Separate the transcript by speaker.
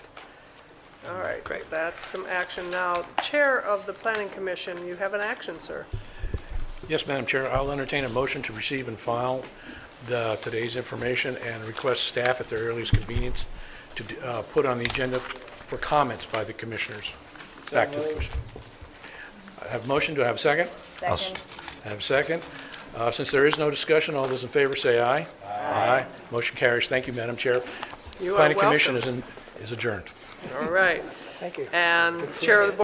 Speaker 1: right, great. That's some action. Now, Chair of the Planning Commission, you have an action, sir.
Speaker 2: Yes, Madam Chair, I'll entertain a motion to receive and file the, today's information and request staff at their earliest convenience to uh, put on the agenda for comments by the commissioners. Back to the commission. I have a motion, do I have a second?
Speaker 3: Second.
Speaker 2: I have a second. Uh, Since there is no discussion, all those in favor say aye. Aye. Motion carries. Thank you, Madam Chair.
Speaker 1: You are
Speaker 2: Planning Commission
Speaker 1: welcome.
Speaker 2: is in- is adjourned.
Speaker 1: All right. Thank you. And Chair of the Board